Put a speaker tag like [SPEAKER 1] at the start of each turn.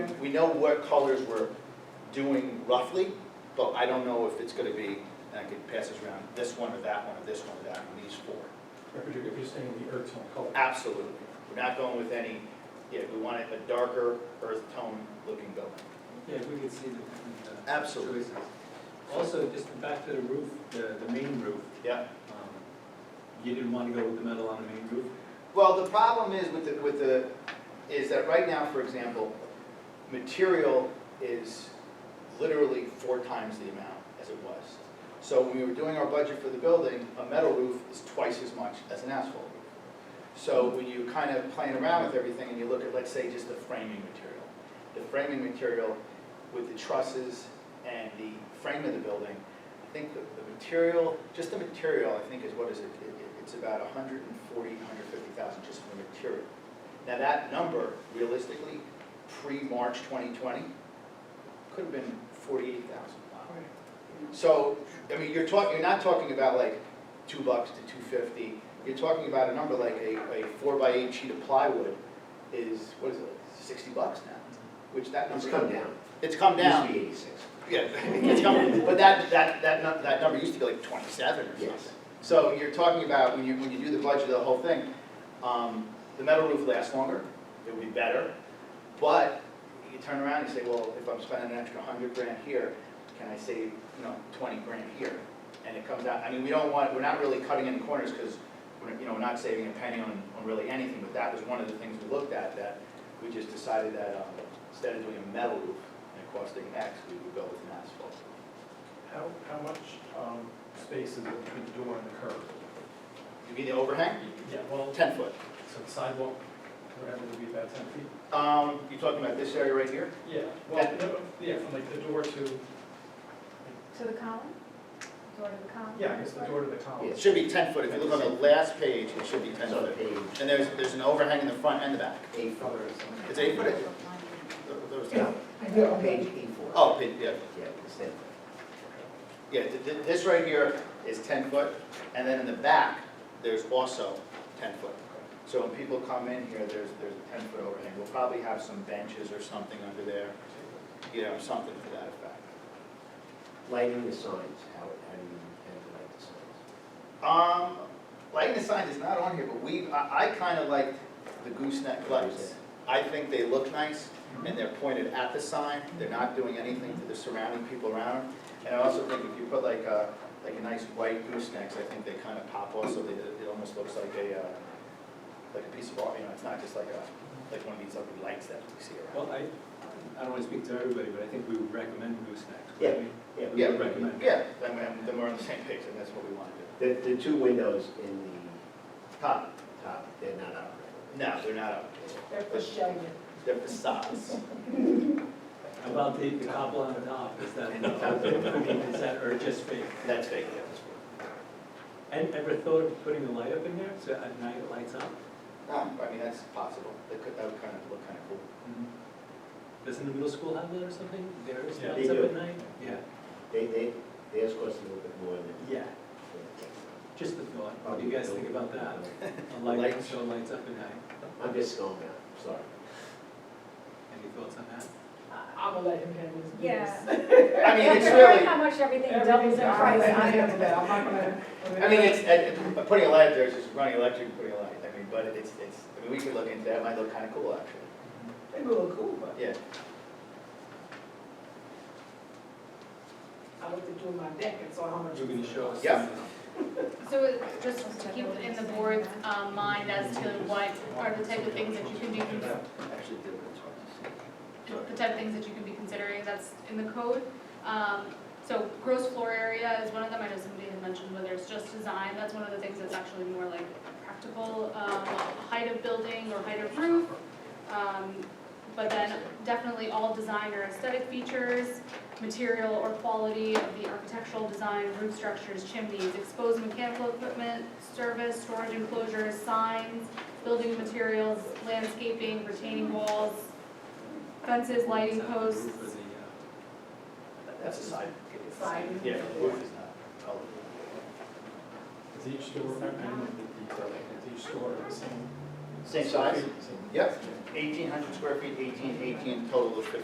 [SPEAKER 1] We know what colors we're doing roughly, but I don't know if it's gonna be, and I could pass this around, this one or that one, or this one or that one, these four.
[SPEAKER 2] If you're, if you're saying the earth tone color.
[SPEAKER 1] Absolutely. We're not going with any, yeah, we want a darker earth tone looking building.
[SPEAKER 3] Yeah, we could see the- the. uh,
[SPEAKER 1] Absolutely.
[SPEAKER 3] choices. Also, just back to the roof, the, the main roof,
[SPEAKER 1] Yeah.
[SPEAKER 3] um, you didn't want to go with the metal on the main roof?
[SPEAKER 1] Well, the problem is with the, with the, is that right now, for example, material is literally four times the amount as it was. So when we were doing our budget for the building, a metal roof is twice as much as an asphalt roof. So when you kind of playing around with everything and you look at, let's say, just the framing material. The framing material with the trusses and the frame of the building, I think the, the material, just the material, I think is, what is it? It- it- It's about a hundred and forty, hundred fifty thousand just for the material. Now, that number realistically, pre-March twenty twenty, could have been forty-eight thousand. So, I mean, you're talking, you're not talking about like two bucks to two fifty, you're talking about a number like a, a four by eight sheet of plywood is, what is it, sixty bucks now, which that
[SPEAKER 4] It's
[SPEAKER 1] number.
[SPEAKER 4] come down.
[SPEAKER 1] It's come
[SPEAKER 4] It used
[SPEAKER 1] down.
[SPEAKER 4] to be eighty-six.
[SPEAKER 1] Yeah, it's coming, but that, that, that, nu- that number used to be like twenty-seven or something.
[SPEAKER 4] Yes.
[SPEAKER 1] So you're talking about, when you, when you do the budget of the whole thing, um, the metal roof lasts longer, it would be better. But you turn around and say, well, if I'm spending an extra hundred grand here, can I save, you know, twenty grand here? And it comes out, I mean, we don't want, we're not really cutting any corners, because we're, you know, we're not saving a penny on, on really anything, but that was one of the things we looked at, that we just decided that, um, instead of doing a metal roof and it costing X, we would go with an asphalt.
[SPEAKER 2] How, how much, um, space is it between the door and the curb?
[SPEAKER 1] You mean the overhang?
[SPEAKER 2] Yeah, well,
[SPEAKER 1] Ten foot.
[SPEAKER 2] so the sidewalk, whatever, would be about ten feet?
[SPEAKER 1] Um, you talking about this area right here?
[SPEAKER 2] Yeah,
[SPEAKER 1] well,
[SPEAKER 2] yeah, from like the door to,
[SPEAKER 5] To the column? Door to the column?
[SPEAKER 2] yeah, I guess the door to the column.
[SPEAKER 1] It should be ten foot, if you look on the last page, it should be ten
[SPEAKER 4] It's on
[SPEAKER 1] foot.
[SPEAKER 4] page
[SPEAKER 1] And there's, there's an overhang in the front and the back.
[SPEAKER 4] eight four.
[SPEAKER 1] It's eight foot? Those- those-
[SPEAKER 4] No, no, page eight four.
[SPEAKER 1] Oh, pin- yeah,
[SPEAKER 4] Yeah, it's that.
[SPEAKER 1] yeah, th- th- this right here is ten foot, and then in the back, there's also ten foot. So when people come in here, there's, there's a ten foot overhang, we'll probably have some benches or something under there, you know, something to that effect.
[SPEAKER 4] Lighting the signs, how, how do you intend to light the signs?
[SPEAKER 1] Um, lighting the signs is not on here, but we, I, I kinda like the gooseneck lights. I think they look nice, and they're pointed at the sign, they're not doing anything to the surrounding people around. And I also think if you put like a, like a nice white goosenecks, I think they kinda pop off, so they, it almost looks like a, uh, like a piece of art, you know, it's not just like a, like one of these ugly lights that we see around.
[SPEAKER 3] Well, I, I don't want to speak to everybody, but I think we would recommend goosenecks.
[SPEAKER 4] Yeah,
[SPEAKER 3] wouldn't
[SPEAKER 4] yeah.
[SPEAKER 3] we?
[SPEAKER 1] Yeah.
[SPEAKER 3] We would recommend.
[SPEAKER 1] Yeah, then, we- then we're on the same page, and that's what we wanna do.
[SPEAKER 4] The, the two windows in the
[SPEAKER 1] Top,
[SPEAKER 4] top, they're not operating.
[SPEAKER 1] no, they're not up,
[SPEAKER 6] They're for showing.
[SPEAKER 1] they're facades.
[SPEAKER 3] How About the, the cobble on the top, is that, uh, is that, or just fake?
[SPEAKER 1] That's fake, yeah.
[SPEAKER 3] And ever thought of putting a light up in there, so at night it lights up?
[SPEAKER 1] No, Um, I mean, that's possible, that could, that would kind of look kind of cool.
[SPEAKER 3] Doesn't the middle school have that or something? Theirs
[SPEAKER 2] Yeah,
[SPEAKER 3] lights
[SPEAKER 4] they
[SPEAKER 3] up
[SPEAKER 4] do.
[SPEAKER 3] at night? Yeah,
[SPEAKER 4] They, they, theirs cost a little bit more than.
[SPEAKER 3] yeah, just the thought, what do you guys think about that? A
[SPEAKER 1] Light.
[SPEAKER 3] light that show lights up at night,
[SPEAKER 4] I'm just going out, sorry.
[SPEAKER 3] any thoughts on that?
[SPEAKER 6] I'm gonna let him have his
[SPEAKER 5] Yeah.
[SPEAKER 6] business.
[SPEAKER 1] I mean, it's
[SPEAKER 5] Right,
[SPEAKER 1] really,
[SPEAKER 5] how much everything doubles in
[SPEAKER 6] Everything's all
[SPEAKER 5] price.
[SPEAKER 6] right, I
[SPEAKER 5] I
[SPEAKER 6] am
[SPEAKER 5] know.
[SPEAKER 6] that, I'm not gonna.
[SPEAKER 1] I mean, it's, it- it- putting a light up there is just running electric, and putting a light, I mean, but it's, it's, I mean, we could look into that, it might look kind of cool, actually.
[SPEAKER 6] They look cool, but
[SPEAKER 1] Yeah,
[SPEAKER 6] I looked into my deck and saw how much.
[SPEAKER 3] You're gonna show us.
[SPEAKER 1] Yeah.
[SPEAKER 7] So it- just to keep in the board's um, mind as to what are the type of things that you can be, con-
[SPEAKER 1] actually, did what it's hard
[SPEAKER 7] the
[SPEAKER 1] to see.
[SPEAKER 7] type of things that you can be considering that's in the code. Um, So gross floor area is one of them, I know somebody had mentioned whether it's just design, that's one of the things that's actually more like practical, um, height of building or height of roof. Um, But then definitely all design or aesthetic features, material or quality of the architectural design, roof structures, chimneys, exposed mechanical equipment, service, storage enclosures, signs, building materials, landscaping, retaining walls, fences, lighting posts.
[SPEAKER 3] For the, uh,
[SPEAKER 1] That's a side.
[SPEAKER 6] Siding.
[SPEAKER 1] Yeah, the roof is not colored.
[SPEAKER 2] Is each door, I mean, the, the, is each door the same
[SPEAKER 4] Same size? Yep, eighteen hundred square feet, eighteen, eighteen, total of fifteen